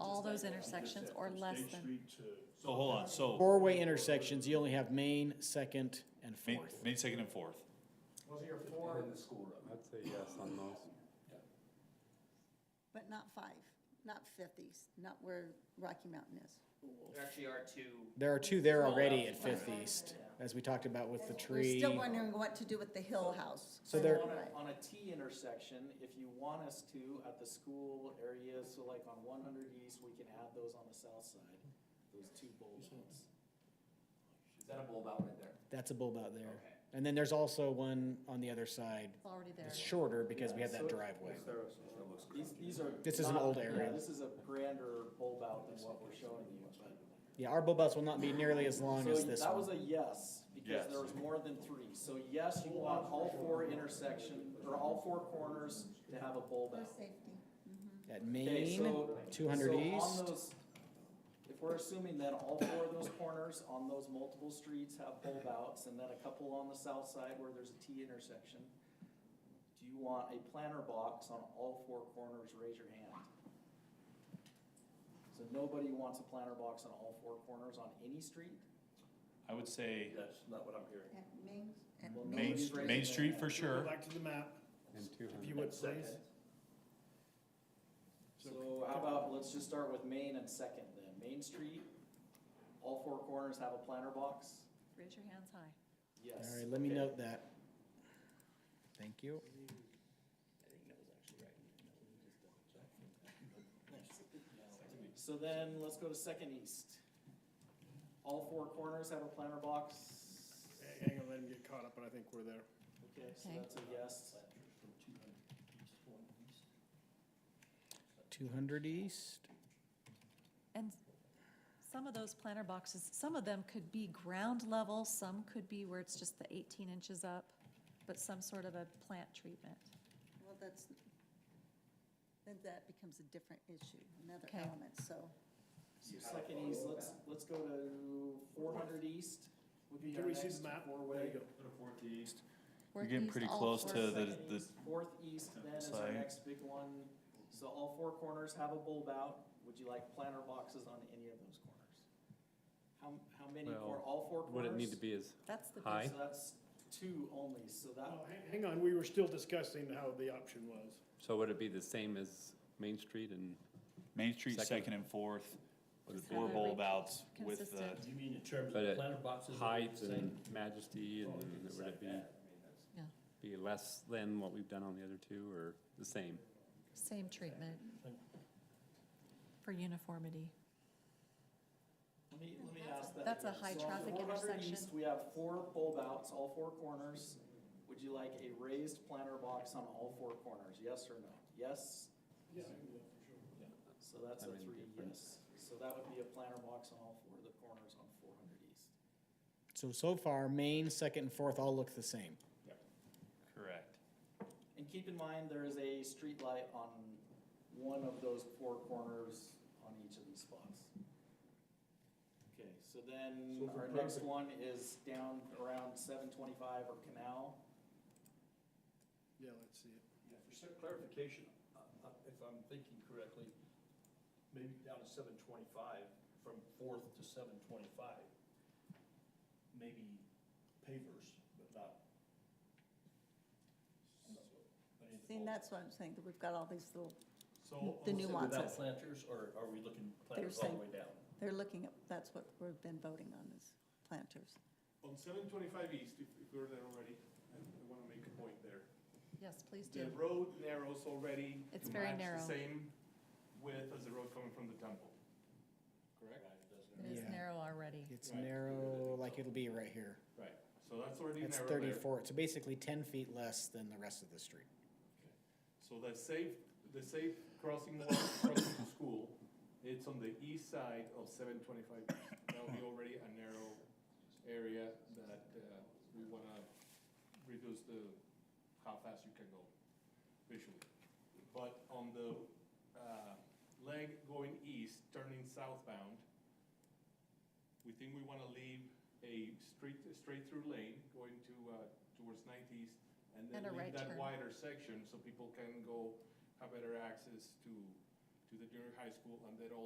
all those intersections or less than, So hold on, so Four-way intersections, you only have Main, Second, and main, Fourth. main, second and fourth. Was your four? the school road. I'd say yes on those. But not five, not fifties, not where Rocky Mountain is. There actually are two. There are two there already at Fifth East, as we talked about with the We're tree. still wondering what to do with the Hill House. So there- on a- On a T intersection, if you want us to, at the school area, so like on one hundred east, we can add those on the south side, those two bold ones. Is that a bulb out right there? That's a bulb out there. Okay. And then there's also one on the other side. It's already there. It's shorter because we have So- that driveway. These, these are. This is an not- old yeah, area. This is a grander bulb out than what we're showing you, but. Yeah, our bulb outs will not be nearly as long as So this That was one. a yes, because there Yes. was more than three. So yes, you want all four intersection, or all four corners to have a bulb For out. safety. At Okay, Main, so- two hundred so on east. those- If we're assuming that all four of those corners on those multiple streets have bulb outs, and then a couple on the south side where there's a T intersection, do you want a planter box on all four corners? Raise your hand. So nobody wants a planter box on all four corners on any street? I would say That's not what I'm hearing. At Main, at Well, Main, Nobody's St- raising Main their Street hand. for sure. Back to the map, And two if you hundred. would please. So how about, let's just start with Main and Second then. Main Street, all four corners have a planter box? raise your hands high. Yes. All right, let me Okay. note that. Thank you. So then, let's go to Second East. All four corners have a planter box? I ain't gonna let him get caught up, but I think we're there. Okay, so Okay. that's a yes. Two hundred east. And some of those planter boxes, some of them could be ground level, some could be where it's just the eighteen inches up, but some sort of a plant treatment. well, that's, then that becomes a different issue, another Okay. element, so. So Second East, let's, let's go to four hundred East. would be Can our we see next the map? four-way. There you go. We're Work getting these pretty all close for- to the- Second east, Fourth east then is our Side. next big one. So all four corners have a bulb out. Would you like planter boxes on any of those corners? How, how many for Well, all four Would corners? it need to be as That's the, high? So that's two only, so Well, that, Uh, hang- Hang on, we were still discussing how the option was. So would it be the same as Main Street and? Main Street, Second. second and fourth, would it be four Have a bulb re- outs with the, consistent. You mean in terms But of at planter boxes? or Height same? and majesty and would it be, Yeah. be less than what we've done on the other two or the same? same treatment for uniformity. let me, let me ask that. That's a high traffic Four hundred intersection. east, we have four bulb outs, all four corners. Would you like a raised planter box on all four corners? Yes or no? Yes? So that's a I'm three indifferent. yes. So that would be a planter box on all four of the corners on four hundred east. So, so far, Main, Second, and Fourth all look the same. correct. And keep in mind, there is a street light on one of those four corners on each of these spots. Okay, so then So our for next traffic- one is down around seven twenty-five or Canal. Yeah, let's see it. Yeah, For some clarification, uh, uh, if I'm thinking correctly, maybe down to seven twenty-five, from fourth to seven twenty-five, maybe pavers, but not. but in the See, and that's what I'm saying, that we've got all these little, So, the is it Without nuances. planters, or are we looking planters all the saying- way down? they're looking at, that's what we've been voting on is planters. On seven twenty-five east, if, if we're there already, I I wanna make a point there. Yes, please do. The road narrows already. It's to very match narrow. The same width as the road coming from the temple. Correct? It is Yeah. narrow already. It's Right. narrow, like it'll be right here. Right, so that's already narrow It's there. thirty-four, so basically ten feet less than the rest of the street. So the safe, the safe crossing, the crossing to school, it's on the east side of seven twenty-five. That'll be already a narrow area that, uh, we wanna reduce the, how fast you can go visually. But on the, uh, leg going east, turning southbound, we think we wanna leave a straight, straight-through lane going to, uh, towards nineties, and then And a right leave that turn. wider section so people can go, have better access to, to the junior high school, and then also